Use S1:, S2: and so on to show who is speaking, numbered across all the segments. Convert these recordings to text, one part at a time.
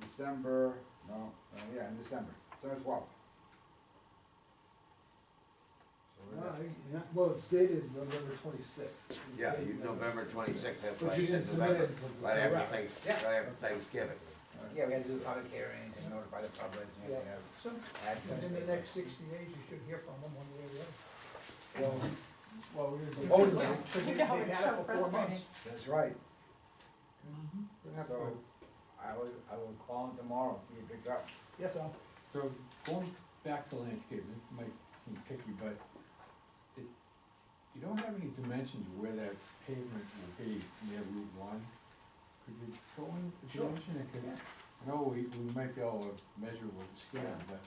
S1: December, no, uh, yeah, in December, December twelfth. Oh,
S2: Yeah, well, it's dated November twenty-sixth.
S3: Yeah, you, November twenty-sixth, that's why
S2: But
S3: I
S2: you
S3: said
S2: didn't submit it
S3: November,
S2: until
S3: right
S2: December.
S3: after Thanks,
S1: Yeah.
S3: right after Thanksgiving.
S1: Yeah, we had to do the public hearings and notify the public, and we
S4: Yeah.
S1: have
S4: So,
S1: admin.
S4: within the next sixty days, you should hear from them one way or the other.
S2: Well, well, we're gonna do.
S4: Oh,
S1: yeah.
S4: Because they-
S5: No,
S4: they've
S5: it's
S4: had
S5: so
S4: it for four months.
S5: frustrating.
S1: That's right,
S4: They're not
S1: so
S4: good.
S1: I will, I will call him tomorrow, see if he picks up.
S4: That's all.
S6: So going back to landscaping, it might seem picky, but it, you don't have any dimensions of where that pavement will be near Route one. Could you show me the
S4: Sure.
S6: dimension? I could,
S4: Yeah.
S6: I know we, we might be able to measure with the scale,
S1: Yeah.
S6: but,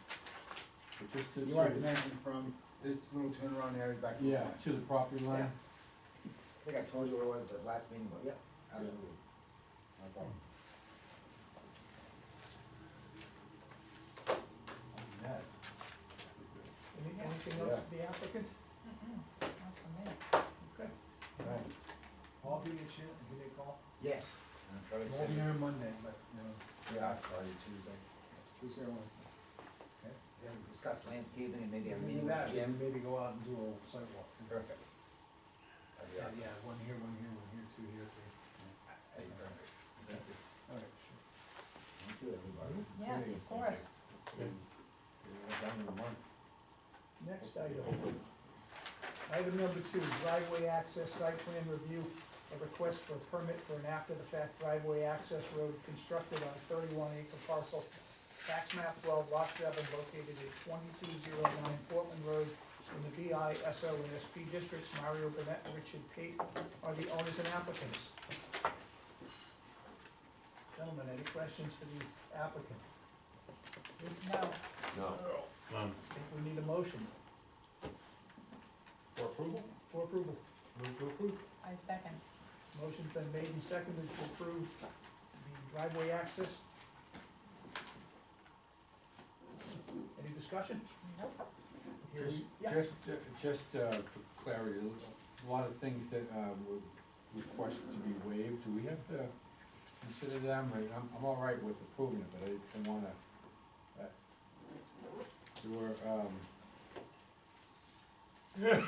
S6: but just to.
S1: You
S6: sort
S1: want
S6: of-
S1: to mention from this little turnaround area back. to the
S6: Yeah,
S1: front.
S6: to the property line.
S1: I think I told you what it was at the last meeting, but yeah, absolutely. No problem.
S6: That.
S4: Any- Anything else for the applicant?
S5: Not for me.
S4: Okay.
S6: Right.
S2: I'll give you a chance, give me a call.
S1: Yes. And I'll try to
S2: Won't be
S1: send it.
S2: here Monday, but, you know.
S1: Yeah, I'll call you Tuesday. Tuesday or Wednesday. Okay, then we discuss landscaping and maybe have a meeting with
S2: Yeah,
S1: Jim.
S2: Maybe go out and do a sidewalk.
S1: Perfect. That'd be
S2: Yeah,
S1: awesome.
S2: one here, one here, one here, two here, three.
S1: That'd be perfect. Thank you.
S2: All right, sure.
S1: Thank you, everybody.
S5: Yes,
S6: Okay.
S5: of course.
S6: Yeah, Done in a month.
S4: Next item. Item number two, driveway access site plan review, a request for a permit for an after-the-fact driveway access road constructed on a thirty-one acre parcel, tax map twelve, lot seven, located at twenty-two zero nine Portland Road, in the BI, SO, and SP districts. Mario Bennett and Richard Pate are the owners and applicants. Gentlemen, any questions for the applicant?
S5: No,
S3: No,
S4: I think we need a motion
S6: For approval?
S4: for approval.
S6: Move to approve.
S5: I second.
S4: Motion's been made and seconded to approve the driveway access. Any discussion?
S5: Nope.
S4: Here
S6: Just,
S4: we- yeah.
S6: just, just uh, for clarity, a lot of things that uh, were requested to be waived, do we have to consider them? I- I'm, I'm all right with approving it, but I didn't wanna, uh, there were, um, the um,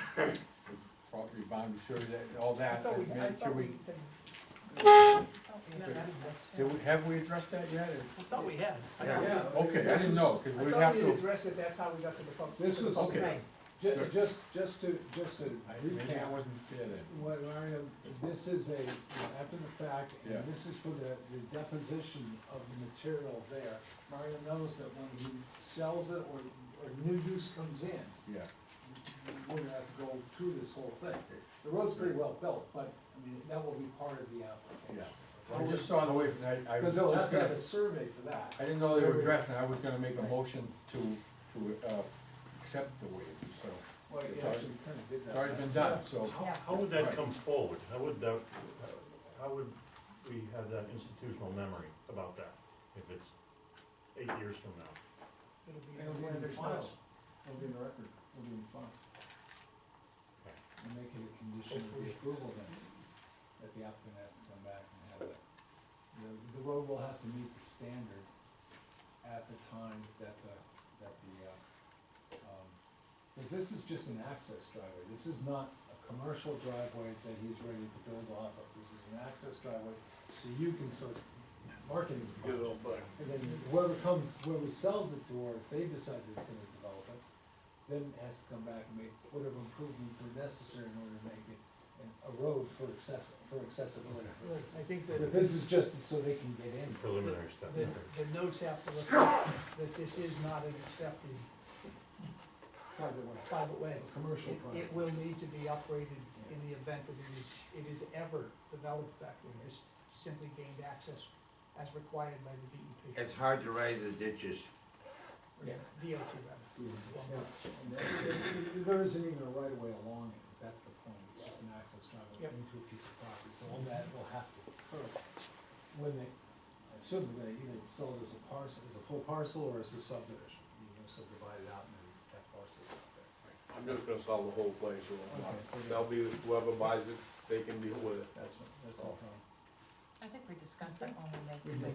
S6: property boundary survey, that, all
S4: I
S6: that,
S4: thought we, I
S6: make sure
S4: thought we,
S6: we,
S4: had-
S6: did we- have we addressed that yet?
S4: I thought we had. I
S3: Yeah.
S4: thought-
S6: Okay, I didn't know, cause
S4: I
S6: we'd
S4: thought
S6: have
S4: we had
S6: to,
S4: addressed it, that's how we got to the public.
S2: This was-
S6: okay,
S2: Ju- just, just to, just to
S6: I- maybe I
S2: recap,
S6: wasn't there then,
S2: what Mario, this is a, you know, after the fact,
S6: Yeah.
S2: and this is for the, the deposition of the material there. Mario knows that when he sells it or, or new use comes in,
S6: yeah.
S2: we're gonna have to go through this whole thing. The road's pretty well built, but, I mean, that will be part of the
S6: Yeah.
S2: application.
S6: I just saw the waiver, and I, I was just
S2: Because they'll have to
S6: gonna-
S2: have a survey for that.
S6: I didn't know they were addressed, and I was gonna make a motion to, to, uh, accept the waiver, so,
S2: Well,
S6: It's
S2: you
S6: already-
S2: actually kind of did that.
S6: it's already been
S2: last
S6: done,
S2: time.
S6: so.
S5: Yeah.
S7: How would that
S6: Right.
S7: come forward? How would that, how would we have that institutional memory about that if it's eight years from now?
S4: It'll be
S2: It'll be
S4: one of
S2: in the
S4: their
S2: file,
S4: spots.
S2: it'll be in the record, it'll be in the file. And make it a condition of the approval then, that the applicant has to come back and have it. The, the road will have to meet the standard at the time that the, that the, uh, um, cause this is just an access driveway, this is not a commercial driveway that he's ready to build off of, this is an access driveway, so you can start marketing the project. And then whoever comes, whoever sells it to, or if they decide they're gonna develop it, then has to come back and make whatever improvements are necessary in order to make it an- a road for access, for accessibility. purposes.
S4: I think
S2: But
S4: that
S2: this is just so they can get in.
S7: Preliminary step.
S4: the, the notes have to look at that this is not an accepted
S2: Private way.
S4: private way.
S2: A commercial
S4: It-
S2: private.
S4: It will need to be upgraded in the event that it is, it is ever developed back when it's simply gained access as required by the DEP.
S3: it's hard to raise the ditches.
S4: Or DOT rather.
S2: Yeah, and that- there- There isn't even a right of way along it, that's the point, it's just an access driveway
S4: Yep.
S2: into a piece of property, so all that will have to occur. When they, I assume that they either sell it as a parcel, as a full parcel, or as a subdivision, you know, subdivide it out and then that parcel's out there.
S8: I'm just gonna sell the whole place, so I'm not-
S2: Okay, so
S8: that'll be whoever buys it, they can deal with it.
S2: That's, that's all.
S5: I think we discussed that when we made